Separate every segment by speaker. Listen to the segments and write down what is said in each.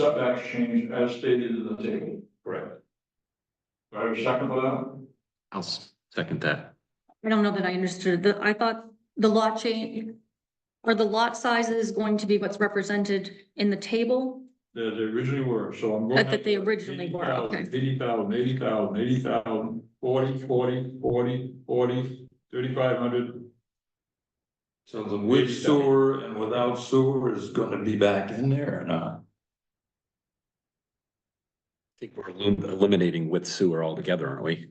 Speaker 1: setbacks changed as stated in the table. Correct. Do I have a second for that?
Speaker 2: I'll s- second that.
Speaker 3: I don't know that I understood. The, I thought the lot change, are the lot sizes going to be what's represented in the table?
Speaker 1: They, they originally were, so I'm going.
Speaker 3: That- that they originally were, okay.
Speaker 1: Eighty thousand, eighty thousand, eighty thousand, forty, forty, forty, forty, thirty-five hundred.
Speaker 4: So the with sewer and without sewer is gonna be back in there or not?
Speaker 2: I think we're elim- eliminating with sewer altogether, aren't we?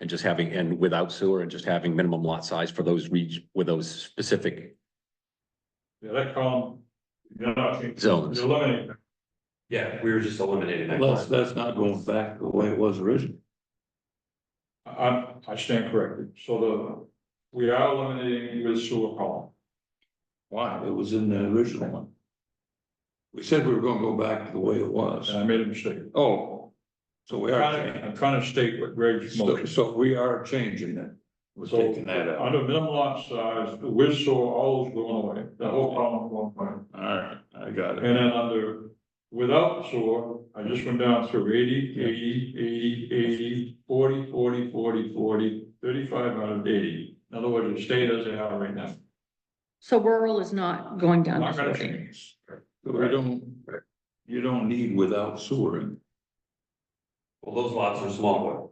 Speaker 2: And just having, and without sewer and just having minimum lot size for those reg, with those specific
Speaker 1: Yeah, that column, you're not, you're
Speaker 2: zones.
Speaker 1: eliminating.
Speaker 2: Yeah, we were just eliminating
Speaker 4: That's, that's not going back the way it was originally.
Speaker 1: I, I- I stand corrected. So the, we are eliminating with sewer column.
Speaker 4: Why? It was in the original one. We said we were gonna go back to the way it was.
Speaker 5: Uh,
Speaker 1: And I made a mistake.
Speaker 4: Oh, so we are,
Speaker 1: Trying to-
Speaker 4: changing-
Speaker 1: I'm trying to state what Greg's
Speaker 4: so,
Speaker 1: motion.
Speaker 4: so we are changing it. We're
Speaker 1: So,
Speaker 4: taking that out.
Speaker 1: Under minimum lot size, the with soil, all is going away, the whole column going away.
Speaker 4: All right, I got it.
Speaker 1: And then under without soil, I just went down through 80, 80, 80, 80, 40, 40, 40, 40, 35 out of eighty. In other words, it stayed as they are right now.
Speaker 3: So rural is not going down to
Speaker 1: Not gonna
Speaker 3: forty.
Speaker 1: change.
Speaker 4: But We don't, you don't need without sewer.
Speaker 5: Well, those lots are smaller.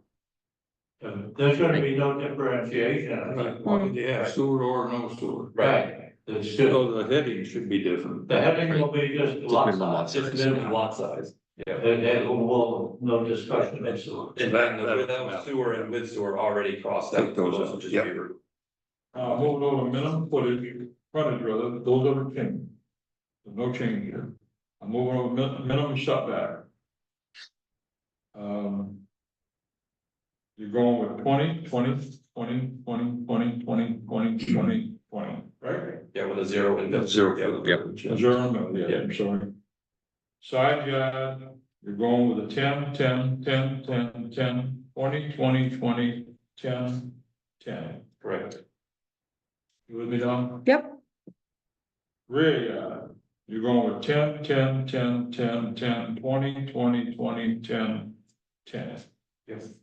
Speaker 6: There's gonna be no differentiation.
Speaker 4: Why do you have sewer or no sewer?
Speaker 5: Right. It's still,
Speaker 4: So the heading should be different.
Speaker 6: The heading will be just lot
Speaker 2: Minimum lot
Speaker 6: size.
Speaker 5: just minimum lot size.
Speaker 6: And it will, no discussion whatsoever.
Speaker 5: And
Speaker 4: That-
Speaker 5: then
Speaker 4: that-
Speaker 5: the without sewer and with sewer already crossed
Speaker 4: Take
Speaker 5: out.
Speaker 4: those out,
Speaker 5: will just
Speaker 4: yep.
Speaker 5: be removed.
Speaker 1: Uh, moving over minimum footage, frontage rather, those are the change. There's no change here. I'm moving over min- minimum setback. Um. You're going with 20, 20, 20, 20, 20, 20, 20, 20, 20, right?
Speaker 5: Yeah, with a zero and.
Speaker 4: That's zero. for the
Speaker 2: Yep.
Speaker 4: village, yeah.
Speaker 1: Is there a minimum? yeah, I'm sorry. Side yard, you're going with a 10, 10, 10, 10, 10, 20, 20, 20, 10, 10.
Speaker 5: Correct.
Speaker 1: You with me, Don?
Speaker 3: Yep.
Speaker 1: Rear yard, uh, you're going with 10, 10, 10, 10, 10, 20, 20, 20, 10, 10.
Speaker 5: Yes. Mm-hmm.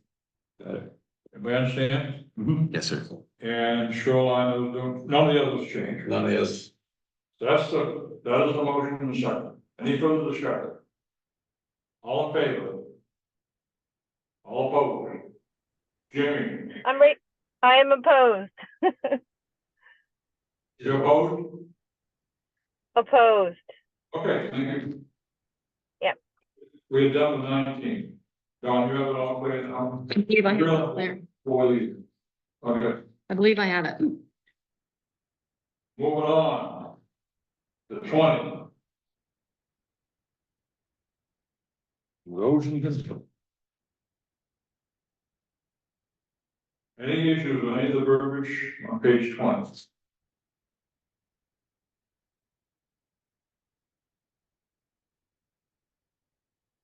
Speaker 4: Got it.
Speaker 1: Everybody understand?
Speaker 2: Yes, sir.
Speaker 1: And shoreline, none of the others change.
Speaker 5: None of this.
Speaker 1: So that's the, that is the motion and second. Any further discussion? All in favor? All opposed? Jimmy,
Speaker 7: I'm right, I am opposed,
Speaker 1: you opposed?
Speaker 7: opposed.
Speaker 1: Okay, thank you.
Speaker 7: Yep.
Speaker 1: We're done with nineteen. Don, you have it all cleared now?
Speaker 3: I believe I have it there.
Speaker 1: Four leaders. Okay,
Speaker 3: I believe I have it.
Speaker 1: moving on. The twenty.
Speaker 4: Erosion control.
Speaker 1: Any issues with any of the verbiage on page twenty?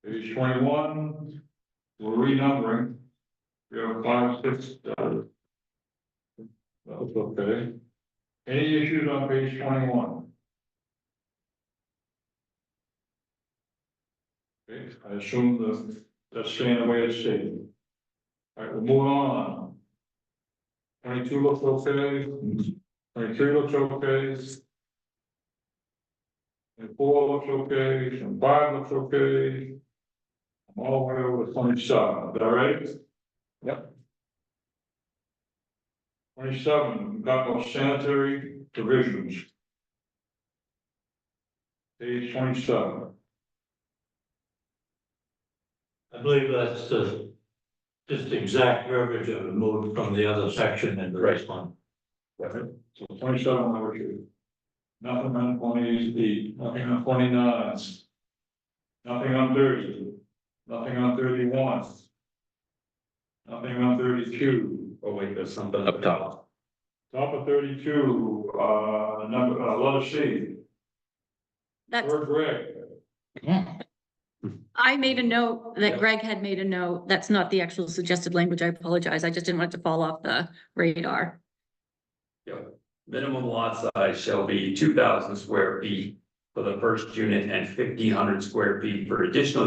Speaker 1: Page twenty-one, we're renumbering. We have five, six, uh. That's okay. Any issues on page twenty-one? Okay, I assume the, that's staying the way it's stated. All right, we'll move on. Twenty-two looks okay, twenty-three looks okay. And four looks okay, and five looks okay. I'm all the way over to twenty-seven, is that right? Yep. Twenty-seven, we've got no sanitary provisions. Page twenty-seven.
Speaker 6: I believe that's the, just exact verbiage that removed from the other section in the first one.
Speaker 1: So twenty-seven, number two. Nothing on twenty-eight, nothing on twenty-nine. Nothing on thirty, nothing on thirty-one. Nothing on thirty-two,
Speaker 5: Oh, wait, there's something.
Speaker 2: Up top.
Speaker 1: top of thirty-two, uh, number, uh, letter C,
Speaker 3: That's,
Speaker 1: word Greg.
Speaker 3: I made a note that Greg had made a note. That's not the actual suggested language. I apologize. I just didn't want it to fall off the radar.
Speaker 5: Minimum lot size shall be two thousand square feet for the first unit and fifteen hundred square feet for additional